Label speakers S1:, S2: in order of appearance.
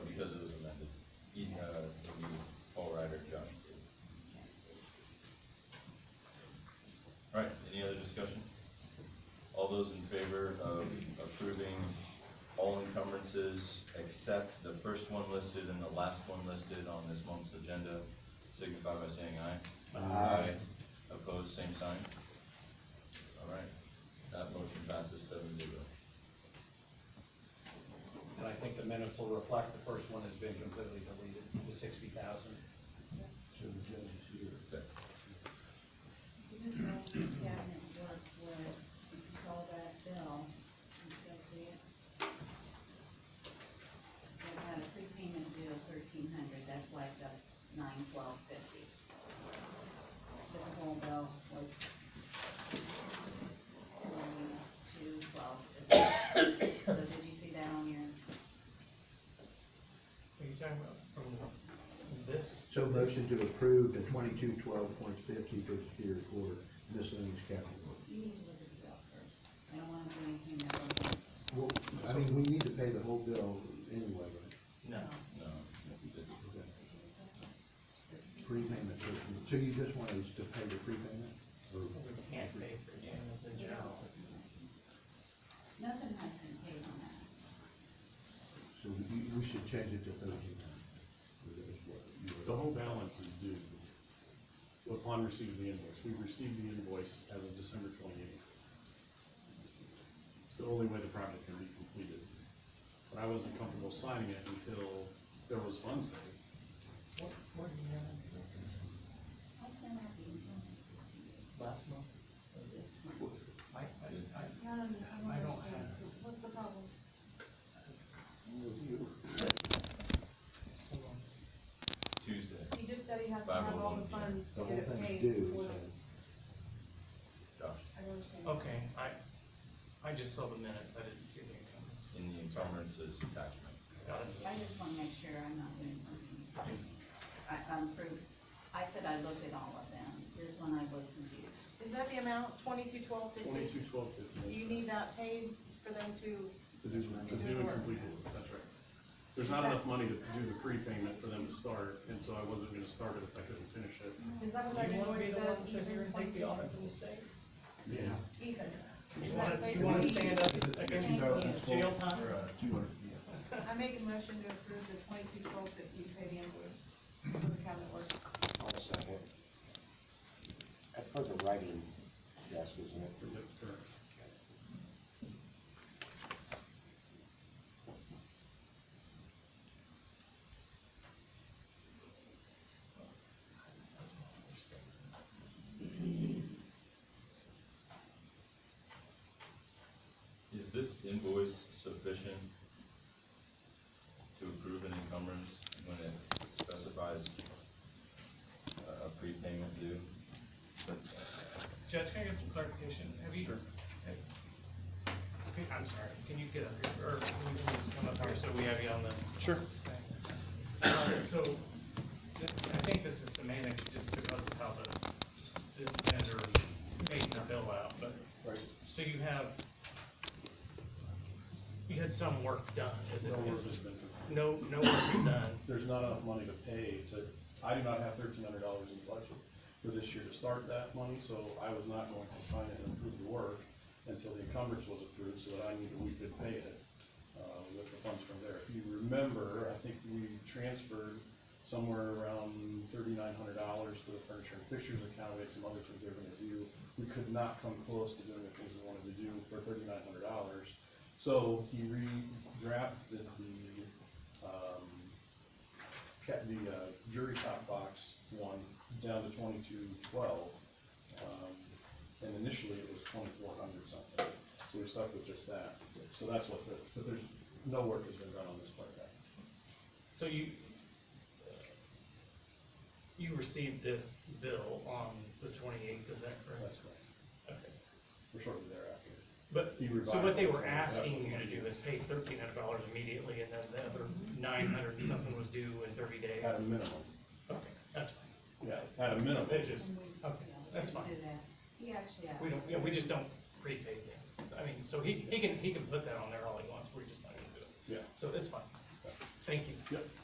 S1: uh, those in favor of approving all encumbrances except the first one listed and the last one listed on this month's agenda signify by saying aye. Aye. Opposed, same sign. All right, that motion passes seven zero.
S2: And I think the minutes will reflect the first one has been completely deleted, the sixty thousand.
S1: Okay.
S3: The miscellaneous cabinet work was, if you saw that bill, did you guys see it? It had a prepayment due of thirteen hundred, that's why it's up nine twelve fifty. But the whole bill was two twelve fifty. So did you see that on your,
S4: Are you talking about from this?
S5: So motion to approve the twenty-two twelve point fifty for the Superior Court miscellaneous capital.
S3: you need to look at the bill first. I don't wanna do anything that wasn't.
S5: Well, I mean, we need to pay the whole bill anyway, right?
S2: No.
S1: No, it's,
S5: Okay.
S3: Says
S5: Prepayment, so- so you just want us to pay the prepayment? Or-
S4: We can't pay for cannabis in general.
S3: Nothing has been paid on that.
S5: So we, we should change it to thirteen hundred.
S6: The whole balance is due upon receipt of the invoice. We received the invoice as of December twenty-eighth. It's the only way the project can be completed. But I wasn't comfortable signing it until there was funds there.
S4: What, what do you have
S3: I sent out the invoices to you
S4: last month?
S3: this month.
S4: I, I, I,
S7: I don't,
S4: I
S7: I don't
S4: don't
S7: understand,
S4: have-
S7: So what's the problem?
S4: hold on.
S1: Tuesday.
S7: He just said he has to have all the
S1: 501, yeah.
S7: funds
S5: The
S7: to
S5: whole
S7: get it
S5: thing's
S7: paid
S5: due,
S7: before,
S5: so.
S7: the-
S1: Josh,
S7: I don't understand.
S4: Okay, I, I just saw the minutes, I didn't see the incumbents.
S1: in the encumbrances attachment.
S4: Got it.
S3: I just wanna make sure I'm not doing something. I, I'm proof, I said I looked at all of them, this one I was confused.
S4: Oh.
S7: Is that the amount, twenty-two, twelve, fifty?
S6: Twenty-two, twelve, fifty.
S7: You need that paid for them to,
S5: To do
S6: To do and complete the work, that's right. There's not enough money to do the prepayment for them to start, and so I wasn't gonna start it if I couldn't finish it.
S7: is that what our
S4: Do you wanna be the one
S7: invoice says?
S4: to sit here and take the honor from the state?
S5: Yeah.
S7: Ethan,
S4: You
S7: Does
S4: wanna,
S7: that say
S4: you wanna
S7: 22?
S4: stand up against jail time?
S7: I make a motion to approve the twenty-two, twelve, fifty, pay the invoice for the cabinet work.
S8: I'll second. That's for the writing desk, isn't it?
S6: Yep, correct.
S1: Is this invoice sufficient to approve an encumbrance when it specifies uh, a a prepayment due?
S4: So, Judge, can I get some clarification? Have you? Hey. Okay, I'm sorry, can you get up here, or can you please come up here so we have you on the? Sure. So, th- I think this is semantics, just because of how the, the vendor made the bill out, but. So you have, you had some work done, is it?
S6: No work has been done.
S4: No, no work is done,
S6: there's not enough money to pay to, I do not have thirteen hundred dollars in the budget for this year to start that money, so I was not going to sign it and approve the work until the encumbrance was approved, so that I knew that we could pay it, uh, with the funds from there. If you remember, I think we transferred somewhere around thirty-nine hundred dollars to the furniture and fixtures account, we had some other things they were gonna do. We could not come close to doing the things we wanted to do for thirty-nine hundred dollars. So he redrafted the, um, kept the uh, jury top box one down to twenty-two twelve. um, And initially it was twenty-four hundred something, so we stuck with just that. So that's what the, but there's, no work has been done on this part yet.
S4: so you, uh, you received this bill on the twenty-eighth, is that correct?
S6: That's right.
S4: Okay.
S6: We're shortly thereafter.
S4: But,
S6: He revised
S4: so what they were
S6: it.
S4: asking you to do is pay thirteen hundred dollars immediately, and then the other nine hundred and something was due in thirty days?
S6: At a minimum,
S4: Okay, that's fine.
S6: yeah, at a minimum.
S4: Um, They just,
S3: And we-
S4: okay,
S3: yeah, we
S4: that's
S3: didn't
S4: fine.
S3: do that. He actually asked.
S4: We don't, yeah, we just don't prepay things. I mean, so he, he can, he can put that on there all he wants, we're just not gonna do it.
S6: Yeah.
S4: So it's fine. Thank you.
S6: Yep.